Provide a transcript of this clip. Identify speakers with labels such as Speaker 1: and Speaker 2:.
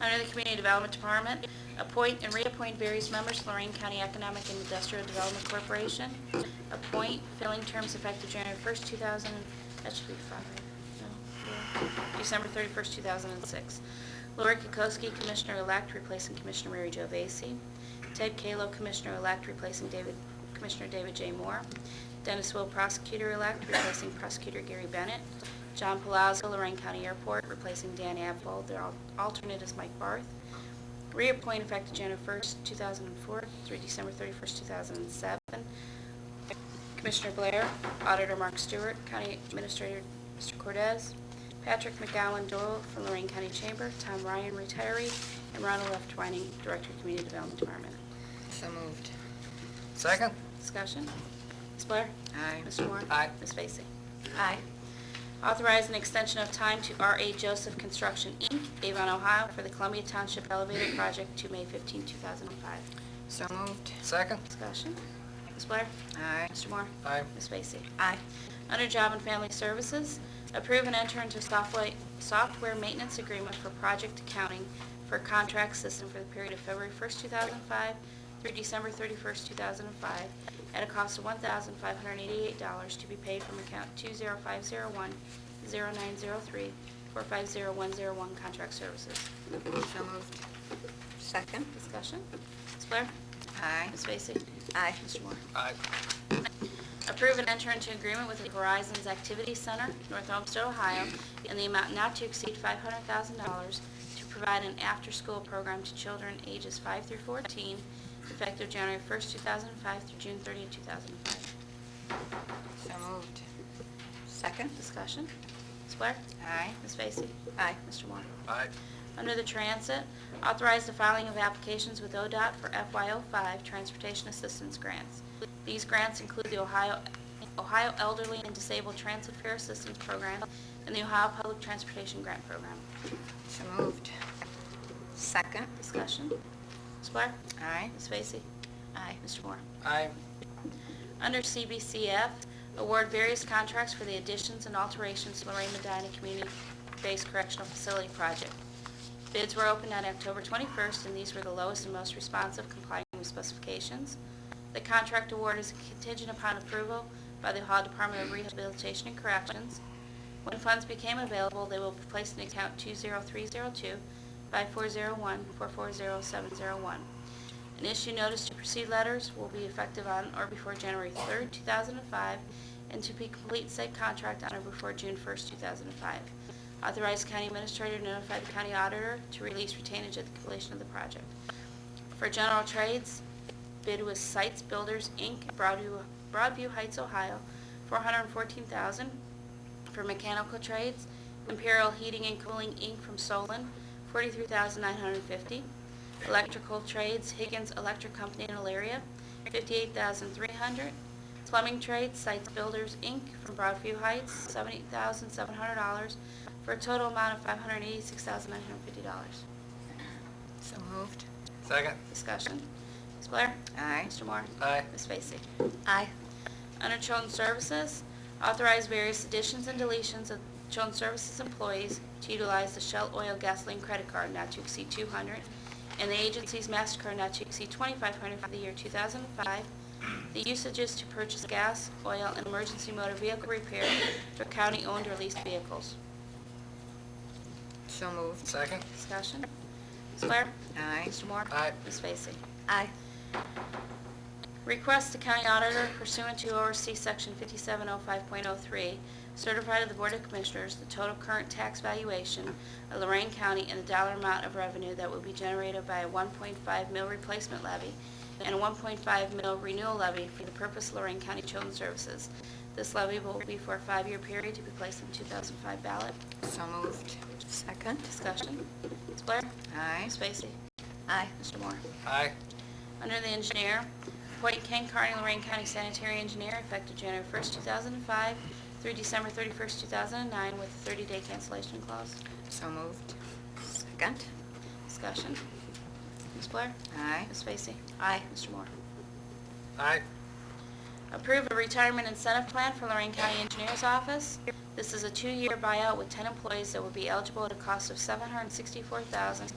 Speaker 1: Under the Community Development Department, appoint and reappoint various members Lorraine County Economic and Industrial Development Corporation. Appoint, filling terms effective January 1st, 2000, that should be five, no, four, December 31st, 2006. Lori Kukowski, Commissioner-elect, replacing Commissioner Mary Jo Vacy. Ted Kalo, Commissioner-elect, replacing David, Commissioner David J. Moore. Dennis Will, Prosecutor-elect, replacing Prosecutor Gary Bennett. John Palazzo, Lorraine County Airport, replacing Dan Abel. Their al- alternate is Mike Barth. Reappoint effective January 1st, 2004 through December 31st, 2007. Commissioner Blair, Auditor Mark Stewart, County Administrator Mr. Cordez, Patrick McGowan Doyle from Lorraine County Chamber, Tom Ryan, retiree, and Ronald F. Twining, Director of Community Development Department.
Speaker 2: So moved.
Speaker 3: Second?
Speaker 1: Discussion? Ms. Blair?
Speaker 2: Aye.
Speaker 1: Mr. Moore?
Speaker 3: Aye.
Speaker 1: Ms. Vacy?
Speaker 2: Aye.
Speaker 1: Authorize an extension of time to R.A. Joseph Construction, Inc., Avon, Ohio, for the Columbia Township Elevator Project to May 15, 2005.
Speaker 2: So moved.
Speaker 3: Second?
Speaker 1: Discussion? Ms. Blair?
Speaker 2: Aye.
Speaker 1: Mr. Moore?
Speaker 3: Aye.
Speaker 1: Ms. Vacy?
Speaker 2: Aye.
Speaker 1: Under Job and Family Services, approve and enter into software software maintenance agreement for project accounting for contract system for the period of February 1st, 2005 through December 31st, 2005, at a cost of $1,588 to be paid from account 20501-0903-450101 Contract Services.
Speaker 2: So moved. Second.
Speaker 1: Discussion? Ms. Blair?
Speaker 2: Aye.
Speaker 1: Ms. Vacy?
Speaker 2: Aye.
Speaker 1: Mr. Moore?
Speaker 3: Aye.
Speaker 1: Approve and enter into agreement with the Horizons Activity Center, North Olmsted, Ohio, in the amount not to exceed $500,000 to provide an after-school program to children ages 5 through 14, effective January 1st, 2005 through June 30th, 2005.
Speaker 2: So moved. Second.
Speaker 1: Discussion? Ms. Blair?
Speaker 2: Aye.
Speaker 1: Ms. Vacy?
Speaker 2: Aye.
Speaker 1: Mr. Moore?
Speaker 3: Aye.
Speaker 1: Under the Transit, authorize the filing of applications with ODOT for FY05 Transportation Assistance Grants. These grants include the Ohio Ohio Elderly and Disabled Transit Fair Assistance Program and the Ohio Public Transportation Grant Program.
Speaker 2: So moved. Second.
Speaker 1: Discussion? Ms. Blair?
Speaker 2: Aye.
Speaker 1: Ms. Vacy? Aye. Mr. Moore?
Speaker 3: Aye.
Speaker 1: Under CBCF, award various contracts for the additions and alterations to Lorraine Medina Community-Based Correctional Facility Project. Bids were opened on October 21st, and these were the lowest and most responsive complying with specifications. The contract award is contingent upon approval by the Ohio Department of Rehabilitation and Corrections. When funds became available, they will be placed in account 20302 by 401-440701. An issue notice to proceed letters will be effective on or before January 3rd, 2005, and to be complete said contract on or before June 1st, 2005. Authorize county administrator to notify the county auditor to release retainage at the completion of the project. For general trades, bid was Sites Builders, Inc., Broadview Broadview Heights, Ohio, 414000 For mechanical trades, Imperial Heating and Cooling, Inc., from Solon, 43950 Electrical trades, Higgins Electric Company in Elyria, 58300 Plumbing trades, Sites Builders, Inc., from Broadview Heights, $78,700, for a total amount of $586,950.
Speaker 2: So moved.
Speaker 3: Second?
Speaker 1: Discussion. Ms. Blair?
Speaker 2: Aye.
Speaker 1: Mr. Moore?
Speaker 3: Aye.
Speaker 1: Ms. Vacy?
Speaker 2: Aye.
Speaker 1: Under Children's Services, authorize various additions and deletions of Children's Services employees to utilize the Shell Oil Gasoline Credit Card not to exceed 200 and the agency's MasterCard not to exceed 2,500 for the year 2005. The usages to purchase gas, oil, and emergency motor vehicle repair for county-owned or leased vehicles.
Speaker 2: So moved.
Speaker 3: Second?
Speaker 1: Discussion. Ms. Blair?
Speaker 2: Aye.
Speaker 1: Mr. Moore?
Speaker 3: Aye.
Speaker 1: Ms. Vacy?
Speaker 2: Aye.
Speaker 1: Request the county auditor pursuant to ORC Section 5705.03, certify to the Board of Commissioners the total current tax valuation of Lorraine County and the dollar amount of revenue that will be generated by a 1.5 mil replacement levy and a 1.5 mil renewal levy for the purpose of Lorraine County Children's Services. This levy will be for a five-year period to be placed in 2005 ballot.
Speaker 2: So moved. Second.
Speaker 1: Discussion. Ms. Blair?
Speaker 2: Aye.
Speaker 1: Ms. Vacy?
Speaker 2: Aye.
Speaker 1: Mr. Moore?
Speaker 3: Aye.
Speaker 1: Under the engineer, appoint Ken Carney, Lorraine County Sanitary Engineer, effective January 1st, 2005 through December 31st, 2009, with a 30-day cancellation clause.
Speaker 2: So moved. Second.
Speaker 1: Discussion. Ms. Blair?
Speaker 2: Aye.
Speaker 1: Ms. Vacy?
Speaker 2: Aye.
Speaker 1: Mr. Moore?
Speaker 3: Aye.
Speaker 1: Approve a retirement incentive plan for Lorraine County Engineers Office. This is a two-year buyout with 10 employees that will be eligible at a cost of $764,000